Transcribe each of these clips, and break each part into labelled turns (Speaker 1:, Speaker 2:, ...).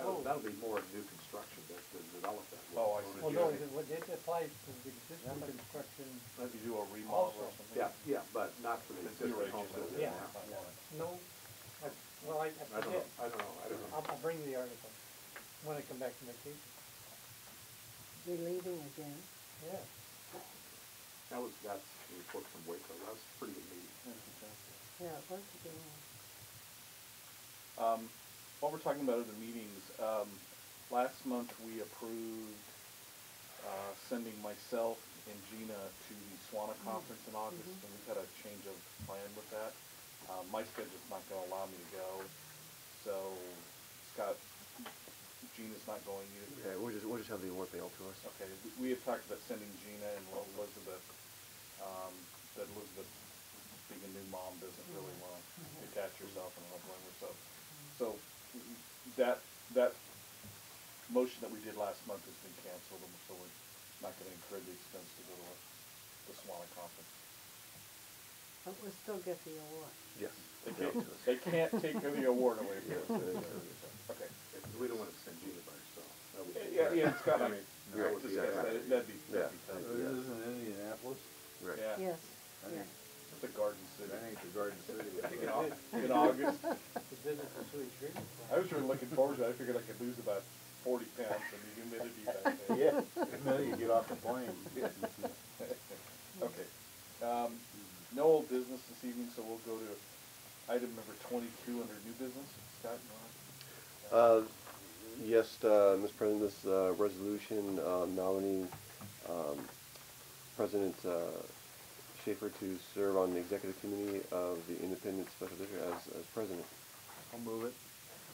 Speaker 1: Oh,
Speaker 2: that'll be more new construction that to develop that.
Speaker 3: Oh, I see.
Speaker 1: Well, no, because what it applies to the existing construction,
Speaker 3: Maybe do a remodel
Speaker 1: Also.
Speaker 3: or something.
Speaker 2: Yeah, yeah, but not for the
Speaker 3: It's
Speaker 2: existing
Speaker 3: your
Speaker 2: homes.
Speaker 3: agent.
Speaker 2: that are
Speaker 1: Yeah.
Speaker 2: now.
Speaker 1: no, I, well, I, I
Speaker 2: I don't know,
Speaker 1: forget,
Speaker 2: I don't know, I don't know.
Speaker 1: I'll, I'll bring the article when I come back from vacation,
Speaker 4: You're leaving again?
Speaker 1: yeah.
Speaker 2: That was, that's the report from Waco, that was a pretty good meeting.
Speaker 4: Yeah, it was again.
Speaker 5: Um, while we're talking about other meetings, um, last month we approved, uh, sending myself and Gina to the SWANA conference in August, and we've had a change of plan with that. Uh, my schedule's not gonna allow me to go, so Scott, Gina's not going either.
Speaker 6: Yeah, we'll just, we'll just have the award mailed to us.
Speaker 5: Okay, we- we had talked about sending Gina and Elizabeth, um, but Elizabeth, being a new mom, doesn't really want to attach herself and I don't blame her, so. So that, that motion that we did last month has been canceled, and so we're not going to incur the expense to go to the Swanee conference.
Speaker 4: But we'll still get the award.
Speaker 6: Yes.
Speaker 5: They can't,
Speaker 6: mailed to us.
Speaker 5: they can't take the award away from us. Okay.
Speaker 2: We don't wanna send Gina by herself. That would be-
Speaker 5: Yeah, yeah, it's got,
Speaker 2: I
Speaker 5: I
Speaker 2: mean,
Speaker 6: Yeah.
Speaker 2: that would be,
Speaker 5: that'd
Speaker 2: a-
Speaker 5: be, that'd be
Speaker 6: Yeah.
Speaker 5: tough.
Speaker 6: Yeah.
Speaker 3: Indianapolis?
Speaker 6: Right.
Speaker 5: Yeah,
Speaker 4: Yes,
Speaker 3: I
Speaker 4: yeah.
Speaker 3: think-
Speaker 5: it's a garden city.
Speaker 3: the Garden City.
Speaker 5: In Au- In August.
Speaker 1: The business and sewage treatment
Speaker 5: I
Speaker 1: plant.
Speaker 5: was really looking forward to it. I figured I could lose about forty pounds in the humidity back there.
Speaker 3: Yeah, and then you get off the plane.
Speaker 5: Okay. Um, no old business this evening, so we'll go to item number twenty-two under new business. Scott, you want
Speaker 6: Uh, Yes, uh, Mr. President, this uh, resolution
Speaker 2: Oh,
Speaker 6: uh, nominating um, President uh, Schaefer to serve on the executive committee of the Independent Special District as, as president.
Speaker 3: I'll move it.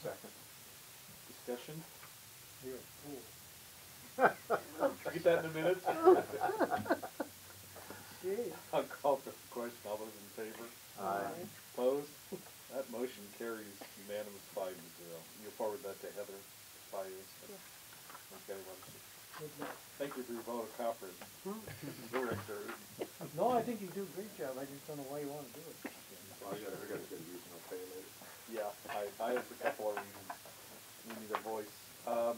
Speaker 2: second.
Speaker 5: discussion?
Speaker 1: You're a fool.
Speaker 5: Did you get that in a minute?
Speaker 4: Gee.
Speaker 5: I'll call for the question. All those in favor?
Speaker 4: Aye.
Speaker 5: Opposed? That motion carries unanimous five to zero. You'll forward that to Heather by instant. Okay, well, thank you for your vote of confidence, Director.
Speaker 1: No, I think you do a great job, I just don't know why you wanna do it.
Speaker 2: Well, I gotta, I gotta get a reason, I'll pay later.
Speaker 5: Yeah, I, I have a couple of reasons. We need a voice. Um,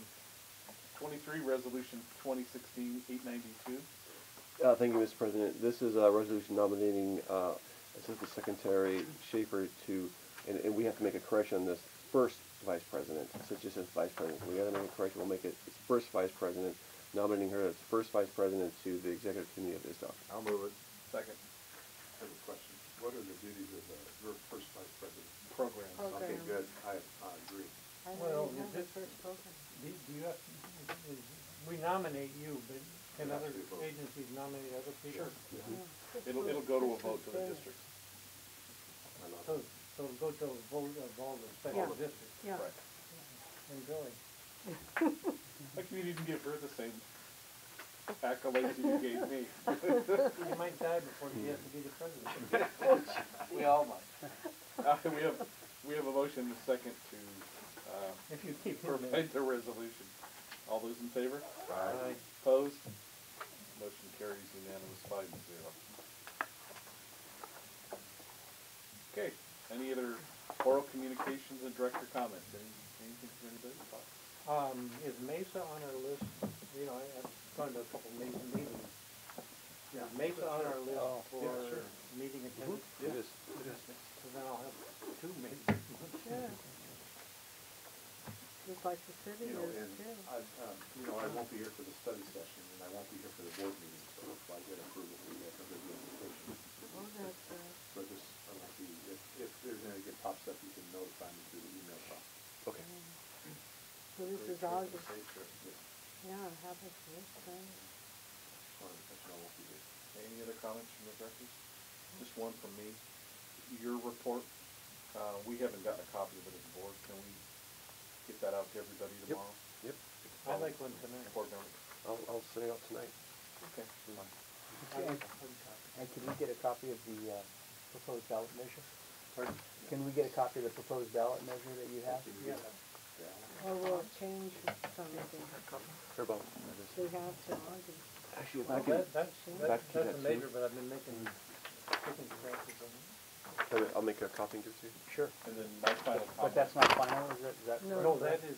Speaker 5: twenty-three, resolution 2016-892.
Speaker 6: Uh, Thank you, Mr. President. This is a resolution nominating uh, Assistant Secretary Schaefer to, and and we have to make a correction on this, first vice president. So it just says vice president. We gotta make a correction. We'll make it first vice president, nominating her as first vice president to the executive committee of ISDOC.
Speaker 3: I'll move it.
Speaker 5: second
Speaker 2: I have a question. What are the duties of the, your first vice president?
Speaker 5: program.
Speaker 2: Okay,
Speaker 4: Program.
Speaker 2: good, I, I agree.
Speaker 4: I
Speaker 1: Well,
Speaker 4: don't
Speaker 1: you
Speaker 4: even have the
Speaker 1: did-
Speaker 4: first program.
Speaker 1: Do, do you have, we nominate you, but can other agencies nominate other people?
Speaker 5: Mm-hmm. It'll, it'll go to a vote to the district.
Speaker 2: I love
Speaker 1: So,
Speaker 2: it.
Speaker 1: so go to a vote of all the
Speaker 4: Yeah.
Speaker 1: special districts
Speaker 4: Yeah,
Speaker 5: Right.
Speaker 1: and going.
Speaker 5: Like you didn't give her the same accolades that you gave me.
Speaker 1: You might die before you have to be the president.
Speaker 5: We all might. Uh, we have, we have a motion and a second to, uh,
Speaker 1: If you keep him there.
Speaker 5: provide the resolution. All those in favor?
Speaker 1: Aye.
Speaker 5: Opposed? Motion carries unanimous five to zero. Okay, any other oral communications and director comments? Any, anything from anybody?
Speaker 1: Um, is Mesa on our list? You know, I- I've gone to a couple Mesa meetings. Yeah, Oh, Mesa on our list for meeting attendance?
Speaker 6: It is.
Speaker 1: So then I'll have two meetings.
Speaker 4: sure. Just like the city
Speaker 2: You know,
Speaker 4: is
Speaker 2: and
Speaker 4: too.
Speaker 2: I, um, you know, I won't be here for the study session, and I won't be here for the board meeting, so if I get approval, we have to do the application.
Speaker 4: Oh, that's right.
Speaker 2: So just, I won't be, if, if there's any good pops up, you can notify me through the email box.
Speaker 6: Okay.
Speaker 4: So this is August, yeah, how about this thing?
Speaker 2: Sorry, that's why I won't be here.
Speaker 5: Any other comments from the directors? Just one from me. Your report, uh, we haven't gotten a copy of it as a board. Can we get that out to everybody tomorrow?
Speaker 6: Yep.
Speaker 1: I like one tonight.
Speaker 5: Board members?
Speaker 6: I'll, I'll send it out tonight.
Speaker 5: Okay.
Speaker 1: I like
Speaker 7: And can we get a copy of the uh, proposed ballot measure? Can we get a copy of the proposed ballot measure that you have?
Speaker 1: Yeah,
Speaker 4: Or we'll change something.
Speaker 6: Or about.
Speaker 4: We have to August.
Speaker 6: Actually, if I
Speaker 1: well,
Speaker 6: can,
Speaker 1: that, that's,
Speaker 6: Back
Speaker 1: that's, that's
Speaker 6: to that
Speaker 1: a
Speaker 6: too.
Speaker 1: major, but I've been making, making scratches on it.
Speaker 6: can I- I'll make a copy and give it to you.
Speaker 7: Sure.
Speaker 5: And then my final comment.
Speaker 7: But that's not final, is that, is that?
Speaker 4: No.
Speaker 1: No, that is,